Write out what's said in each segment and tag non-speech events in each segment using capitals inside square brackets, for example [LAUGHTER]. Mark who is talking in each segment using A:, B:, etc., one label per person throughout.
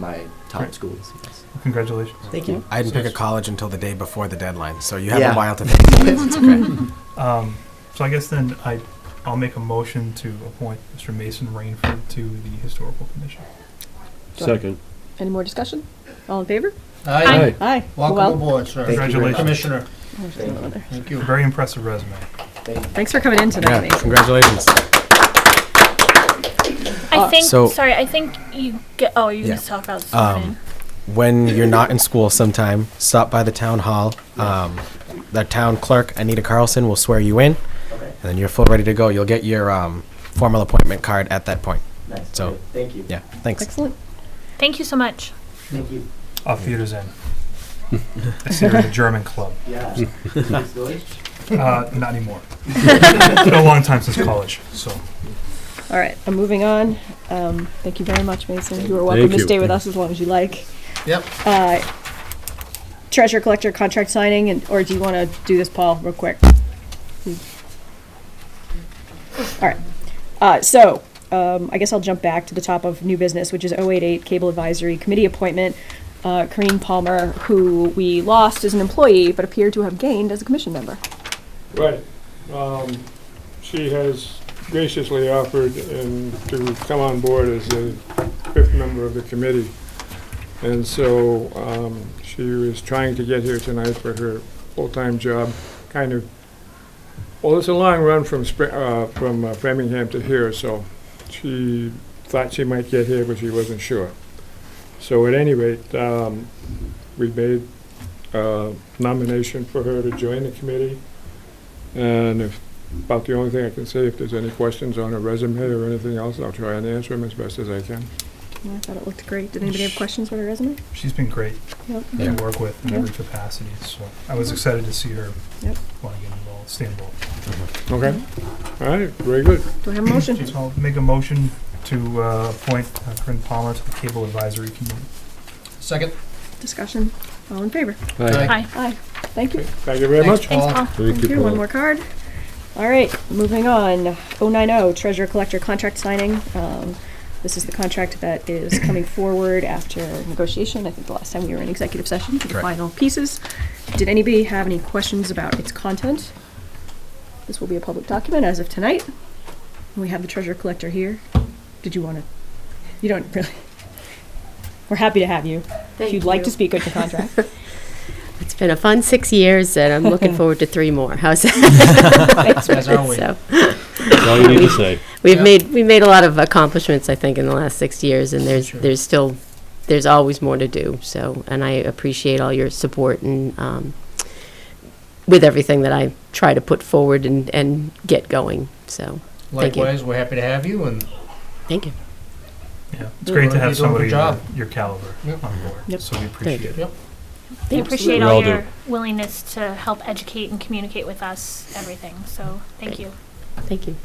A: my top schools. Yes.
B: Congratulations.
A: Thank you.
C: I didn't pick a college until the day before the deadline, so you have
A: Yeah.
D: [LAUGHS]
C: a while to think.
A: it's okay.
B: Um, so I guess then I, I'll make a motion to appoint Mr. Mason Rainford to the Historical Commission.
E: Second.
F: Any more discussion? All in favor?
E: Aye.
F: Aye.
G: Welcome aboard, sir.
A: Thank you very much.
B: Congratulations.
G: Commissioner,
F: Well,
G: thank you.
B: Very impressive resume.
F: Thanks for coming in tonight,
C: Yeah,
F: Mason.
C: congratulations.
H: I think.
C: Uh, so-
H: sorry, I think you get. Oh, you
C: Yeah.
H: can just talk about
C: Um,
H: something.
C: When you're not in school sometime, stop by the town hall. Um, the town clerk, Anita Carlson, will swear you in, and then you're full ready to go. You'll get your um, formal appointment card at that point.
A: Nice.
C: So-
A: thank you.
C: Yeah, thanks.
F: Excellent.
H: Thank you so much.
A: Thank you.
B: Off
A: [LAUGHS]
B: theaters in. It's here at the German Club.
A: Yeah.
B: Uh,
A: [LAUGHS]
B: not anymore. It's been a long time since college, so.
F: All right, I'm moving on. Um, thank you very much, Mason. You are welcome
E: Thank
F: to
E: you.
F: stay with us as long as you like.
G: Yep.
F: Uh, treasure collector contract signing, and or do you want to do this, Paul, real quick? All right. Uh, so um, I guess I'll jump back to the top of new business, which is 088 Cable Advisory Committee appointment. Uh, Kareen Palmer, who we lost as an employee but appeared to have gained as a commission member.
I: Right. Um, She has graciously offered and to come on board as a fifth member of the committee. And so um, she was trying to get here tonight for her full-time job, kind of, well, it's a long run from Spr- uh, from uh, Framingham to here, so she thought she might get here, but she wasn't sure. So at any rate, um, we made a nomination for her to join the committee. And if, about the only thing I can say, if there's any questions on her resume or anything else, I'll try and answer them as best as I can.
F: Yeah, I thought it looked great. Did anybody have questions about her resume?
B: She's been great
F: Yep.
B: to work with in
F: Yeah.
B: every capacity, so I was excited to see her
F: Yep.
B: want to get involved, stay involved.
I: Okay? All right, very good.
F: Do I have a motion?
B: So I'll make a motion to uh, appoint uh, Corinne Palmer to the Cable Advisory Committee.
G: Second.
F: Discussion. All in favor?
E: Aye.
H: Hi.
F: Aye. Thank you.
I: Thank you very
G: Thanks,
I: much.
H: Thanks,
G: Paul.
H: Paul.
E: Thank you,
F: One
E: Paul.
F: more card. All right, moving on. 090, treasurer collector contract signing. Um, This is the contract that is
E: [COUGHS]
F: coming forward after negotiation. I think the last time we were in executive session for the
C: Correct.
F: final pieces. Did anybody have any questions about its content? This will be a public document as of tonight. We have the treasurer collector here. Did you want to, you don't really, we're happy to have you. If you'd like to speak on your contract.
D: It's been a fun six years, and I'm looking forward to three more. How's that?
G: As always.
D: So
E: That's all you need to say.
D: we've
G: Yeah.
D: made we made a lot of accomplishments, I think, in the last six years, and there's
G: Sure.
D: there's still there's always more to do. So, and I appreciate all your support and um, with everything that I try to put forward and and get going. So, Thank you.
G: Likewise, we're happy to have you, and
D: thank you.
B: Yeah, it's
G: Yeah,
B: great
G: well,
B: to have
G: you're doing a
B: somebody your,
G: good job.
B: your caliber
G: Yep.
B: on board,
F: Yep.
B: so we appreciate it.
G: you.
H: We appreciate
E: We
H: all
E: all do.
H: your willingness to help educate and communicate with us everything. So thank you.
D: Thank you.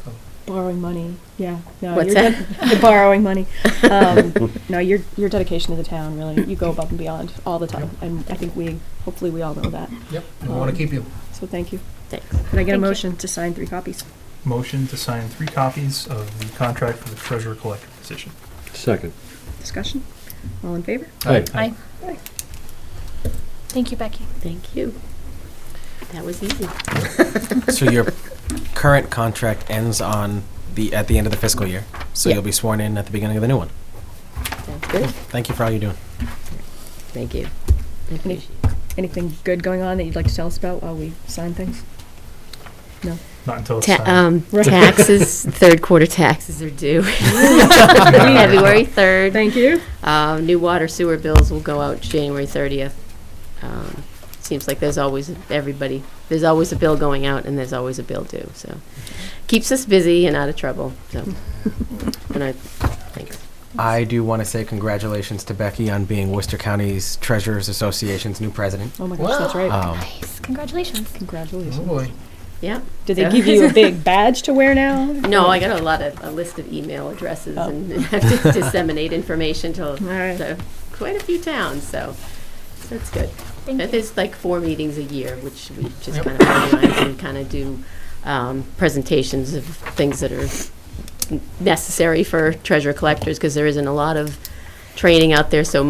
F: borrowing money. Yeah. No,
D: What's
F: you're de- you're borrowing
D: [LAUGHS]
F: money. Um, no, your your dedication to the town really. You go above and beyond all the time, and I think we hopefully we all know that.
G: yep, we want to keep you.
F: So thank you.
D: Thanks.
F: Can I get
H: Thank
F: a
H: you.
F: motion to sign three copies?
B: Motion to sign three copies of the contract for the treasurer collector position.
E: Second.
F: Discussion. All in favor?
E: Aye.
H: Aye.
F: Aye.
H: Thank you, Becky.
D: Thank you. That was easy.
C: So your current contract ends on the, at the end of the fiscal year, so
D: Yeah.
C: you'll be sworn in at the beginning of the new one.
D: Sounds good.
C: Thank you for all you're doing.
D: Thank you. I
F: Any,
D: appreciate
F: anything good going on that you'd like to tell us about while we sign
D: [LAUGHS]
F: things?
B: Not until it's
D: Ta-
B: signed.
E: [LAUGHS]
D: um,
F: Right.
D: taxes, third quarter taxes are due February 3rd.
F: Thank you.
D: Uh, new water sewer bills will go out January 30th. Um, seems like there's always everybody, there's always a bill going out and there's always a bill due. So keeps us busy and out of trouble. So, and I, thanks.
C: I do want to say congratulations to Becky on being Worcester County's Treasurers Association's new president.
F: Oh my gosh, that's right.
C: Um,
H: Nice. Congratulations.
G: Oh,
F: Congratulations.
G: boy.
D: Yeah.
F: Did they give you
D: [LAUGHS]
F: a big badge to wear now?
D: No, Oh, I got a lot of, a list of email addresses
F: Oh.
D: and have to disseminate information to
F: All right.
D: to quite a few towns, so that's good.
H: Thank
D: Uh,
H: you.
D: There's like four meetings a year, which we just
G: Yep.
D: kind of organize and kind of do um, presentations of things that are necessary for treasure collectors, because there isn't a lot of training out there, so